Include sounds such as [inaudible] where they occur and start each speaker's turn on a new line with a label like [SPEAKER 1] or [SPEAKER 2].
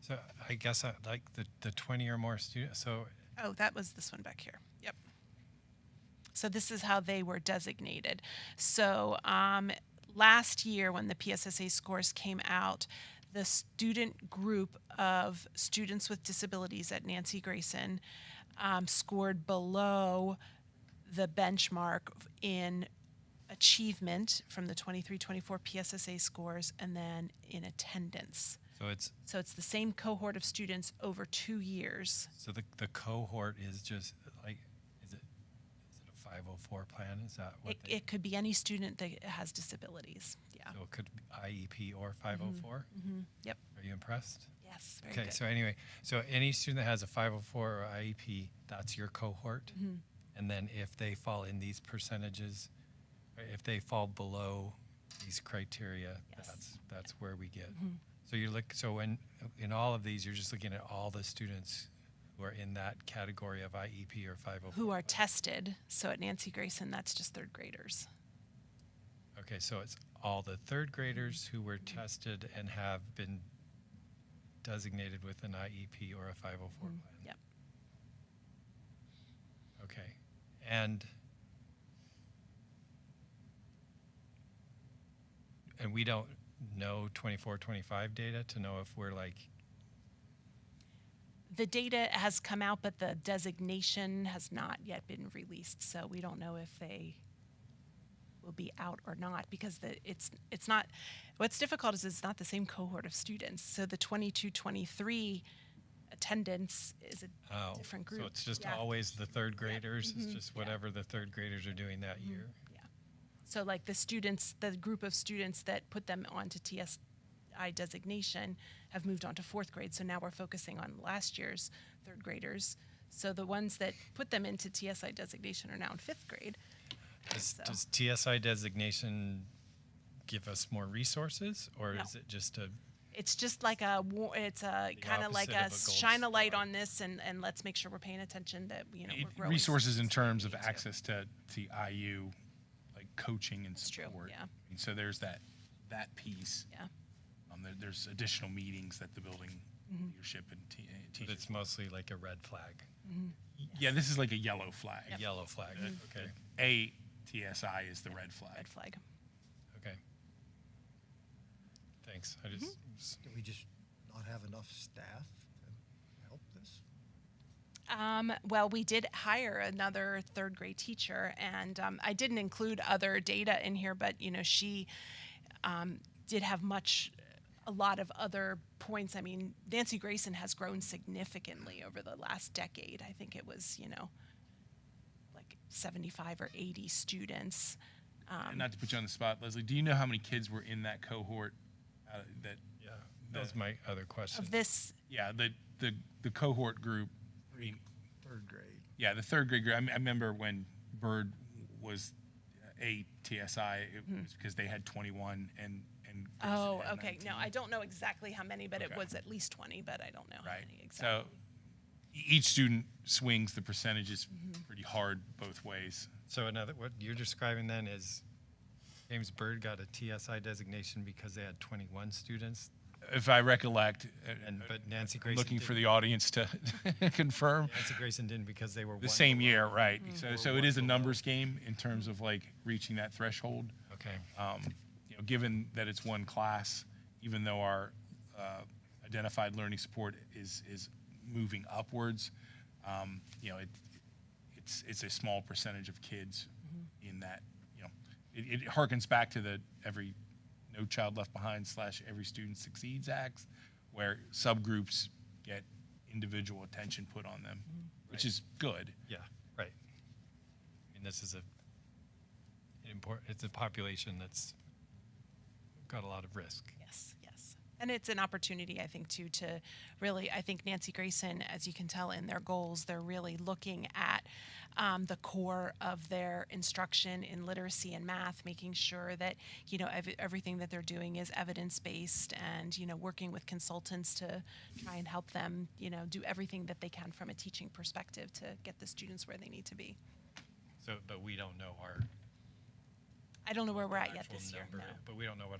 [SPEAKER 1] So I guess I like the, the 20 or more students. So
[SPEAKER 2] Oh, that was this one back here. Yep. So this is how they were designated. So um, last year, when the PSSA scores came out, the student group of students with disabilities at Nancy Grayson um, scored below the benchmark in achievement from the 23 24 PSSA scores and then in attendance.
[SPEAKER 1] so it's
[SPEAKER 2] So it's the same cohort of students over two years.
[SPEAKER 1] so the, the cohort is just like is it is it a 504 plan? Is that what
[SPEAKER 2] It,
[SPEAKER 1] they,
[SPEAKER 2] it could be any student that has disabilities. Yeah.
[SPEAKER 1] so it could be IEP or 504?
[SPEAKER 2] Mm-hmm. Yep.
[SPEAKER 1] Are you impressed?
[SPEAKER 2] Yes. Very
[SPEAKER 1] Okay,
[SPEAKER 2] good.
[SPEAKER 1] so anyway, so any student that has a 504 or IEP, that's your cohort.
[SPEAKER 2] Mm-hmm.
[SPEAKER 1] And then if they fall in these percentages, or if they fall below these criteria,
[SPEAKER 2] Yes. Mm-hmm.
[SPEAKER 1] that's, that's where we get. So you look, so when, in all of these, you're just looking at all the students who are in that category of IEP or 504.
[SPEAKER 2] Who are tested. So at Nancy Grayson, that's just third graders.
[SPEAKER 1] Okay, so it's all the third graders who were tested and have been designated with an IEP or a 504 plan.
[SPEAKER 2] Mm-hmm. Yep.
[SPEAKER 1] Okay, and and we don't know 24, 25 data to know if we're like,
[SPEAKER 2] The data has come out, but the designation has not yet been released. So we don't know if they will be out or not because the, it's it's not what's difficult is it's not the same cohort of students. So the 22 23 attendance is a
[SPEAKER 1] oh,
[SPEAKER 2] different group.
[SPEAKER 1] so it's just
[SPEAKER 2] Yeah. Mm-hmm.
[SPEAKER 1] always the third graders. It's just whatever the third graders are doing that year.
[SPEAKER 2] Yeah. So like the students, the group of students that put them onto TSI designation have moved on to fourth grade. So now we're focusing on last year's third graders. So the ones that put them into TSI designation are now in fifth grade.
[SPEAKER 1] Does,
[SPEAKER 2] So-
[SPEAKER 1] does TSI designation give us more resources, or
[SPEAKER 2] No.
[SPEAKER 1] is it just a
[SPEAKER 2] It's just like a, wa- it's a kind of like
[SPEAKER 1] opposite of
[SPEAKER 2] a
[SPEAKER 1] a gold
[SPEAKER 2] shine a light
[SPEAKER 1] star.
[SPEAKER 2] on this and, and let's make sure we're paying attention that, you know,
[SPEAKER 3] It-
[SPEAKER 2] we're growing.
[SPEAKER 3] resources in terms of access to, to IU, like coaching and
[SPEAKER 2] That's true,
[SPEAKER 3] support.
[SPEAKER 2] yeah.
[SPEAKER 3] I mean, so there's that, that piece.
[SPEAKER 2] Yeah.
[SPEAKER 3] Um, there, there's additional meetings that the building
[SPEAKER 2] Mm-hmm.
[SPEAKER 3] leadership and te- uh,
[SPEAKER 1] But
[SPEAKER 3] teachers.
[SPEAKER 1] it's mostly like a red flag,
[SPEAKER 3] Yeah, this is like a yellow flag.
[SPEAKER 1] a yellow flag.
[SPEAKER 3] Mm-hmm.
[SPEAKER 1] Okay,
[SPEAKER 3] A TSI is the red
[SPEAKER 2] Red
[SPEAKER 3] flag.
[SPEAKER 2] flag.
[SPEAKER 1] okay. Thanks. I just,
[SPEAKER 2] Mm-hmm.
[SPEAKER 1] s-
[SPEAKER 4] Do we just not have enough staff to help this?
[SPEAKER 2] Um, well, we did hire another third grade teacher, and um, I didn't include other data in here, but you know, she um, did have much, a lot of other points. I mean, Nancy Grayson has grown significantly over the last decade. I think it was, you know, like 75 or 80 students.
[SPEAKER 3] And not to put you on the spot, Leslie, do you know how many kids were in that cohort? Uh, that,
[SPEAKER 1] yeah, that was my other question.
[SPEAKER 2] Of this,
[SPEAKER 3] yeah, the, the, the cohort group. I mean,
[SPEAKER 4] Third grade.
[SPEAKER 3] Yeah, the third grade group. I, m- I remember when Bird was a TSI, it was because they had 21 and and. Grayson
[SPEAKER 2] Hmm. oh,
[SPEAKER 3] had
[SPEAKER 2] okay. No,
[SPEAKER 3] 19,
[SPEAKER 2] I don't know exactly how many, but it
[SPEAKER 3] Okay.
[SPEAKER 2] was at least 20, but I don't know how
[SPEAKER 3] Right.
[SPEAKER 2] many exactly.
[SPEAKER 3] So e- each student swings the percentages
[SPEAKER 2] Mm-hmm.
[SPEAKER 3] pretty hard both ways.
[SPEAKER 1] So another, what you're describing then is James Byrd got a TSI designation because they had 21 students,
[SPEAKER 3] If I recollect,
[SPEAKER 1] and,
[SPEAKER 3] and
[SPEAKER 1] but Nancy Grayson.
[SPEAKER 3] looking for
[SPEAKER 1] didn't-
[SPEAKER 3] the audience to [laughs] confirm
[SPEAKER 1] Nancy Grayson didn't because they were.
[SPEAKER 3] the
[SPEAKER 1] one
[SPEAKER 3] same
[SPEAKER 1] below.
[SPEAKER 3] year, right?
[SPEAKER 2] Mm-hmm.
[SPEAKER 3] So
[SPEAKER 1] Or
[SPEAKER 3] so
[SPEAKER 1] one
[SPEAKER 3] it is a
[SPEAKER 1] below.
[SPEAKER 3] numbers game in terms of like reaching that threshold.
[SPEAKER 1] Okay,
[SPEAKER 3] um, you know, given that it's one class, even though our uh, identified learning support is is moving upwards, um, you know, it, it's it's a small percentage of kids in that. You know, it, it harkens back to the every no child left behind slash every student succeeds acts, where subgroups get individual attention put on them, which is good.
[SPEAKER 1] yeah, right. I mean, this is a important, it's a population that's got a lot of risk.
[SPEAKER 2] Yes, yes. And it's an opportunity, I think, too, to really, I think Nancy Grayson, as you can tell in their goals, they're really looking at um, the core of their instruction in literacy and math, making sure that, you know, ev- everything that they're doing is evidence based and, you know, working with consultants to try and help them, you know, do everything that they can from a teaching perspective to get the students where they need to be.
[SPEAKER 1] So, but we don't know our
[SPEAKER 2] I don't know where we're at yet
[SPEAKER 1] actual
[SPEAKER 2] this year.
[SPEAKER 1] number,
[SPEAKER 2] no.
[SPEAKER 1] but we don't know what